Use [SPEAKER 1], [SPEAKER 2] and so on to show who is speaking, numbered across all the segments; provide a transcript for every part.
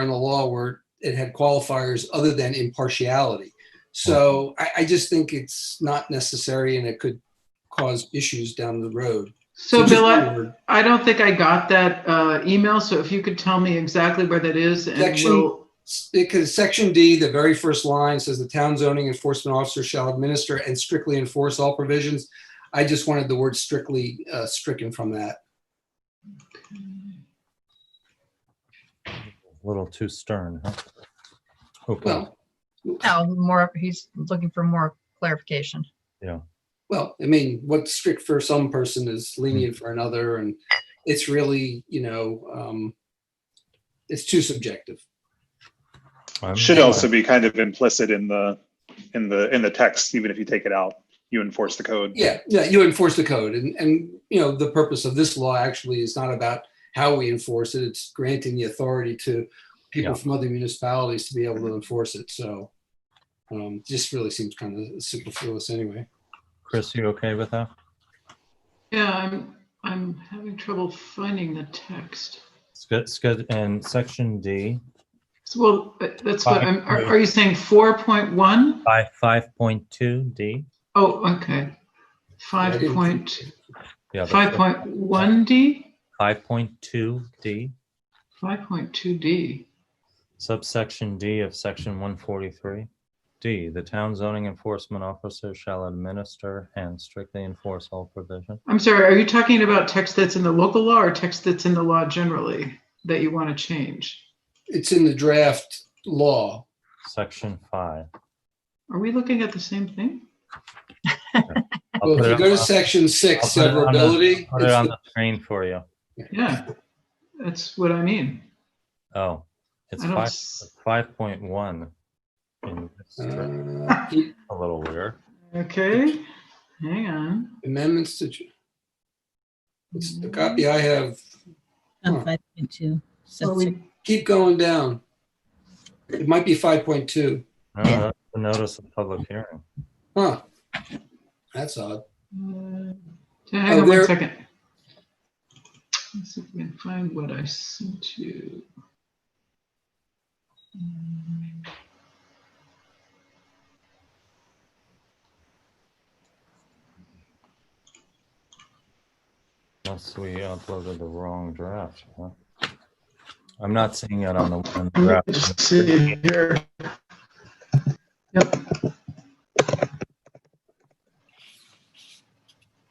[SPEAKER 1] in the law where it had qualifiers other than impartiality. So I, I just think it's not necessary and it could cause issues down the road.
[SPEAKER 2] So
[SPEAKER 1] just
[SPEAKER 2] Bill, I-
[SPEAKER 1] one word.
[SPEAKER 2] I don't think I got that uh, email, so if you could tell me exactly where that is and
[SPEAKER 1] Section-
[SPEAKER 2] we'll,
[SPEAKER 1] Because section D, the very first line says the town zoning enforcement officer shall administer and strictly enforce all provisions. I just wanted the word strictly uh, stricken from that.
[SPEAKER 3] A little too stern, huh? Okay,
[SPEAKER 1] Well,
[SPEAKER 4] No, more, he's looking for more clarification.
[SPEAKER 1] well, I mean, what's strict for some person is lenient for another. And it's really, you know, um, it's too subjective.
[SPEAKER 3] I'm-
[SPEAKER 5] Should also be kind of implicit in the, in the, in the text, even if you take it out, you enforce the code.
[SPEAKER 1] Yeah, yeah, you enforce the code, and and you know the purpose of this law actually is not about how we enforce it. It's granting the authority to people
[SPEAKER 3] Yeah.
[SPEAKER 1] from other municipalities to be able to enforce it. So, um, just really seems kind of superfluous anyway.
[SPEAKER 3] Chris, you okay with that?
[SPEAKER 2] yeah, I'm, I'm having trouble finding the text.
[SPEAKER 3] Sc- sc- And section D,
[SPEAKER 2] So, well, that- that's what, I'm- are
[SPEAKER 3] Five.
[SPEAKER 2] are you saying 4.1?
[SPEAKER 3] five, five point two D?
[SPEAKER 2] Oh, okay. 5.1D?
[SPEAKER 3] Yeah,
[SPEAKER 2] 5.1D?
[SPEAKER 3] Five point two D,
[SPEAKER 2] 5.2D.
[SPEAKER 3] subsection D of section one forty-three. D, the town zoning enforcement officer shall administer and strictly enforce all provision.
[SPEAKER 2] I'm sorry, are you talking about text that's in the local law or text that's in the law generally that you want to change?
[SPEAKER 1] It's in the draft law.
[SPEAKER 3] Section five.
[SPEAKER 2] Are we looking at the same thing?
[SPEAKER 3] I'll
[SPEAKER 1] Well,
[SPEAKER 3] put
[SPEAKER 1] if
[SPEAKER 3] it
[SPEAKER 1] you
[SPEAKER 3] on-
[SPEAKER 1] go to section six,
[SPEAKER 3] I'll put it on the-
[SPEAKER 1] severability.
[SPEAKER 3] Put it
[SPEAKER 1] it's
[SPEAKER 3] on
[SPEAKER 1] the-
[SPEAKER 3] the screen for you.
[SPEAKER 2] Yeah, that's what I mean.
[SPEAKER 3] Oh, it's
[SPEAKER 2] I don't
[SPEAKER 3] five,
[SPEAKER 2] s-
[SPEAKER 3] five point one. A
[SPEAKER 1] uh, keep
[SPEAKER 3] little weird.
[SPEAKER 2] Okay, hang on.
[SPEAKER 1] amendments to. It's the copy I have. Huh.
[SPEAKER 6] On five point two.
[SPEAKER 2] Well, we-
[SPEAKER 1] Keep going down. It might be five point two.
[SPEAKER 3] No, that's the notice of public hearing.
[SPEAKER 1] Huh. That's odd.
[SPEAKER 2] uh,
[SPEAKER 1] Oh,
[SPEAKER 2] Hang on
[SPEAKER 1] there-
[SPEAKER 2] one second. Let's see if we can find what I sent you. Mm.
[SPEAKER 3] Unless we uploaded the wrong draft. huh? I'm not seeing it on the one
[SPEAKER 2] Let me
[SPEAKER 3] draft.
[SPEAKER 2] just see here. Yep,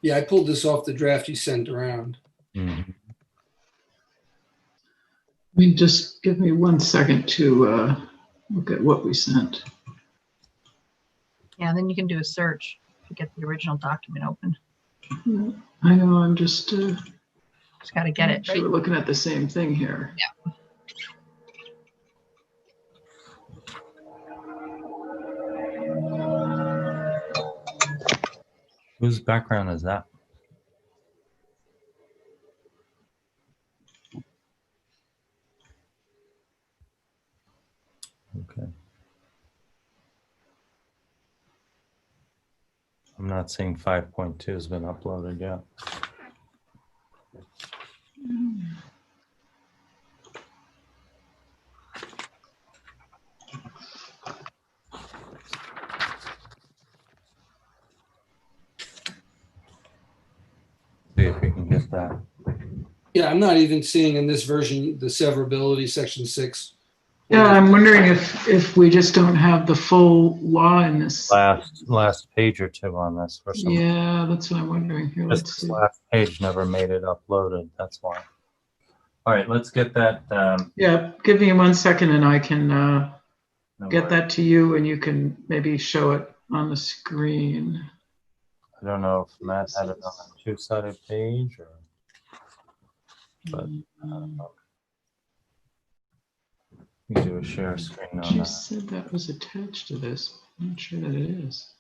[SPEAKER 1] Yeah, I pulled this off the draft you sent around.
[SPEAKER 3] Mhm.
[SPEAKER 2] I mean, just give me one second to uh, look at what we sent.
[SPEAKER 4] Yeah, then you can do a search to get the original document open.
[SPEAKER 2] Yeah, I know, I'm just. uh,
[SPEAKER 4] Just got to get it,
[SPEAKER 2] Sure,
[SPEAKER 4] right?
[SPEAKER 2] We're looking at the same thing here.
[SPEAKER 3] Whose background is that? Okay. I'm not seeing five point two has been uploaded yet. See if we can get that.
[SPEAKER 1] Yeah, I'm not even seeing in this version the severability section six.
[SPEAKER 2] Yeah, I'm wondering if, if we just don't have the full law in this.
[SPEAKER 3] Last, last page or two on this for some,
[SPEAKER 2] Yeah, that's what I'm wondering here. Let's
[SPEAKER 3] just this
[SPEAKER 2] see.
[SPEAKER 3] last page never made it uploaded, that's why. All right, let's get that, um.
[SPEAKER 2] Yeah, give me one second and I can uh,
[SPEAKER 3] no
[SPEAKER 2] get
[SPEAKER 3] worries.
[SPEAKER 2] that to you and you can maybe show it on the screen.
[SPEAKER 3] I don't know if Matt had it on a two-sided page or, but, uh, I don't know. You do a share screen on
[SPEAKER 2] She
[SPEAKER 3] that.
[SPEAKER 2] said that was attached to this. I'm not sure that it is.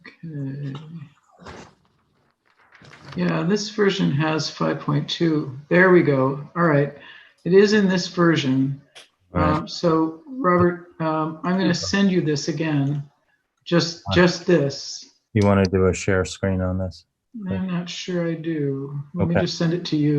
[SPEAKER 2] Okay. Yeah, this version has 5.2. There we go. All right. It is in this version.
[SPEAKER 3] Right,
[SPEAKER 2] Um, So Robert, um, I'm going to send you this again. Just, just this.
[SPEAKER 3] you want to do a share screen on this?
[SPEAKER 2] I'm not sure I do. Let me
[SPEAKER 3] Okay.
[SPEAKER 2] just send it to you.